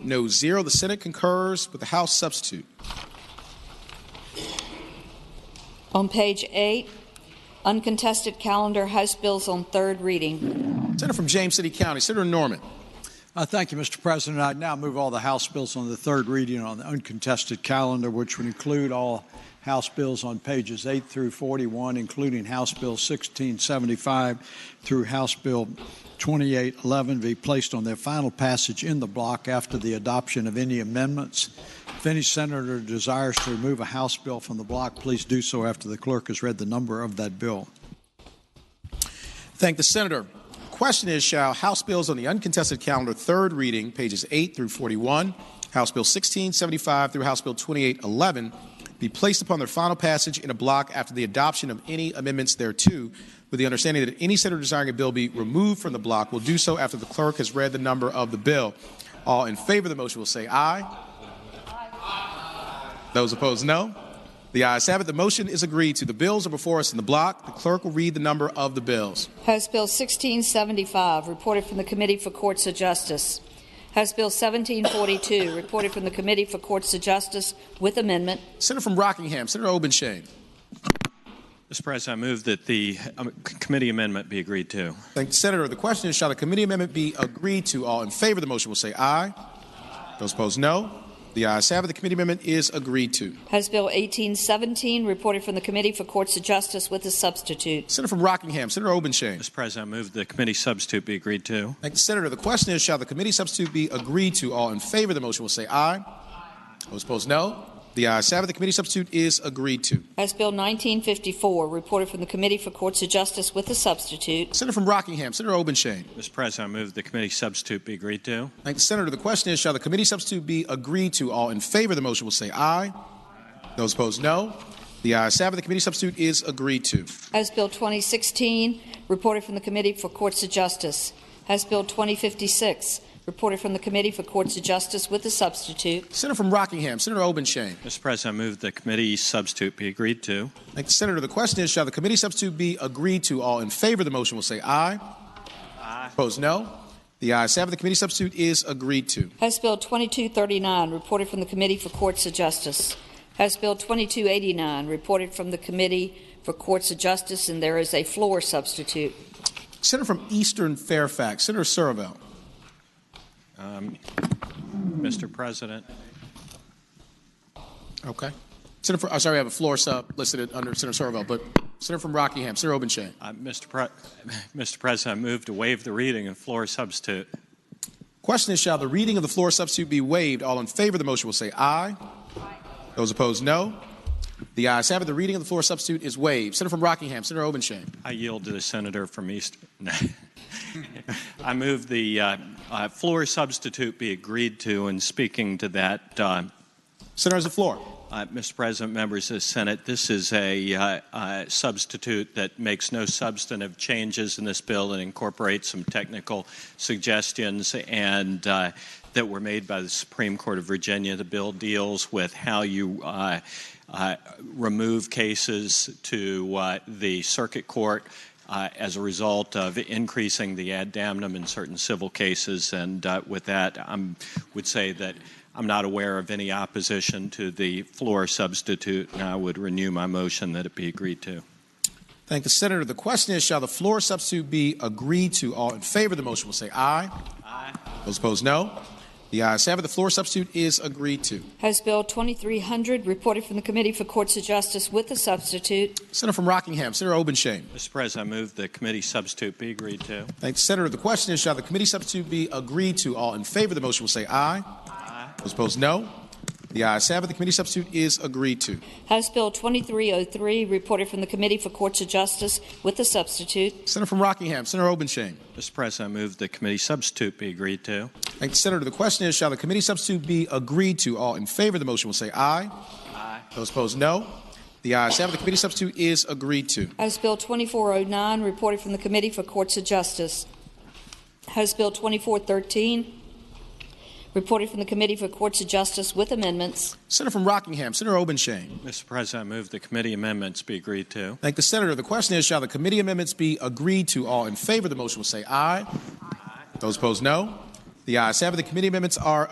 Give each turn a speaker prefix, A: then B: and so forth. A: No zero. The Senate concurs with the House substitute.
B: On page eight, uncontested calendar, House bills on third reading.
A: Senator from James City County, Senator Norman.
C: Uh, thank you, Mr. President. I now move all the House bills on the third reading on the uncontested calendar, which would include all House bills on pages 8 through 41, including House Bill 1675 through House Bill 2811, be placed on their final passage in the block after the adoption of any amendments. If any senator desires to remove a House bill from the block, please do so after the clerk has read the number of that bill.
A: Thank the senator. Question is Shall House bills on the uncontested calendar, third reading, pages 8 through 41, House Bill 1675 through House Bill 2811, be placed upon their final passage in a block after the adoption of any amendments thereto, with the understanding that any senator desiring a bill be removed from the block will do so after the clerk has read the number of the bill? All in favor of the motion will say aye. Those opposed, no. The ayes have it. The motion is agreed to. The bills are before us in the block. The clerk will read the number of the bills.
B: House Bill 1675, reported from the Committee for Courts of Justice. House Bill 1742, reported from the Committee for Courts of Justice with amendment.
A: Senator from Rockingham, Senator Obenshain.
D: Mr. President, I move that the um, c- committee amendment be agreed to.
A: Thank you, Senator. The question is, shall the committee amendment be agreed to? All in favor of the motion will say aye. Those opposed, no. The ayes have it. The committee amendment is agreed to.
B: House Bill 1817, reported from the Committee for Courts of Justice with a substitute.
A: Senator from Rockingham, Senator Obenshain.
D: Mr. President, I move the committee substitute be agreed to.
A: Thank you, Senator. The question is, shall the committee substitute be agreed to? All in favor of the motion will say aye. Those opposed, no. The ayes have it. The committee substitute is agreed to.
B: House Bill 1954, reported from the Committee for Courts of Justice with a substitute.
A: Senator from Rockingham, Senator Obenshain.
D: Mr. President, I move the committee substitute be agreed to.
A: Thank the senator. The question is, shall the committee substitute be agreed to? All in favor of the motion will say aye. Those opposed, no. The ayes have it. The committee substitute is agreed to.
B: House Bill 2016, reported from the Committee for Courts of Justice. House Bill 2056, reported from the Committee for Courts of Justice with a substitute.
A: Senator from Rockingham, Senator Obenshain.
D: Mr. President, I move the committee substitute be agreed to.
A: Thank the senator. The question is, shall the committee substitute be agreed to? All in favor of the motion will say aye. Aye. Opposed, no. The ayes have it. The committee substitute is agreed to.
B: House Bill 2239, reported from the Committee for Courts of Justice. House Bill 2289, reported from the Committee for Courts of Justice, and there is a floor substitute.
A: Senator from Eastern Fairfax, Senator Surville.
D: Mr. President,
A: Okay. Senator, from, oh, sorry, I have a floor sub listed under Senator Surville, but Senator from Rockingham, Senator Obenshain.
D: uh, Mr. Pre- Mr. President, I move to waive the reading and floor substitute.
A: Question is, shall the reading of the floor substitute be waived? All in favor of the motion will say aye. Those opposed, no. The ayes have it. The reading of the floor substitute is waived. Senator from Rockingham, Senator Obenshain.
D: I yield to the senator from East. No. I move the uh, uh, floor substitute be agreed to. And speaking to that, uh,
A: Senator has the floor.
D: uh, Mr. President, members of the Senate, this is a uh, uh, substitute that makes no substantive changes in this bill and incorporates some technical suggestions and uh, that were made by the Supreme Court of Virginia. The bill deals with how you. Uh, uh, remove cases to uh, the circuit court uh, as a result of increasing the ad damnum in certain civil cases. And uh, with that, I would say that I'm not aware of any opposition to the floor substitute, and I would renew my motion that it be agreed to.
A: Thank the senator. The question is, shall the floor substitute be agreed to? All in favor of the motion will say aye. Aye. Those opposed, no. The ayes have it. The floor substitute is agreed to.
B: House Bill 2300, reported from the Committee for Courts of Justice with a substitute.
A: Senator from Rockingham, Senator Obenshain.
D: Mr. President, I move the committee substitute be agreed to.
A: Thank the senator. The question is, shall the committee substitute be agreed to? All in favor of the motion will say aye. Aye. Those opposed, no. The ayes have it. The committee substitute is agreed to.
B: House Bill 2303, reported from the Committee for Courts of Justice with a substitute.
A: Senator from Rockingham, Senator Obenshain.
D: Mr. President, I move the committee substitute be agreed to.
A: Thank the senator. The question is, shall the committee substitute be agreed to? All in favor of the motion will say aye. Aye. Those opposed, no. The ayes have it. The committee substitute is agreed to.
B: House Bill 2409, reported from the Committee for Courts of Justice. House Bill 2413, reported from the Committee for Courts of Justice with amendments.
A: Senator from Rockingham, Senator Obenshain.
D: Mr. President, I move the committee amendments be agreed to.
A: Thank the senator. The question is, shall the committee amendments be agreed to? All in favor of the motion will say aye. Those opposed, no. The ayes have it. The committee amendments are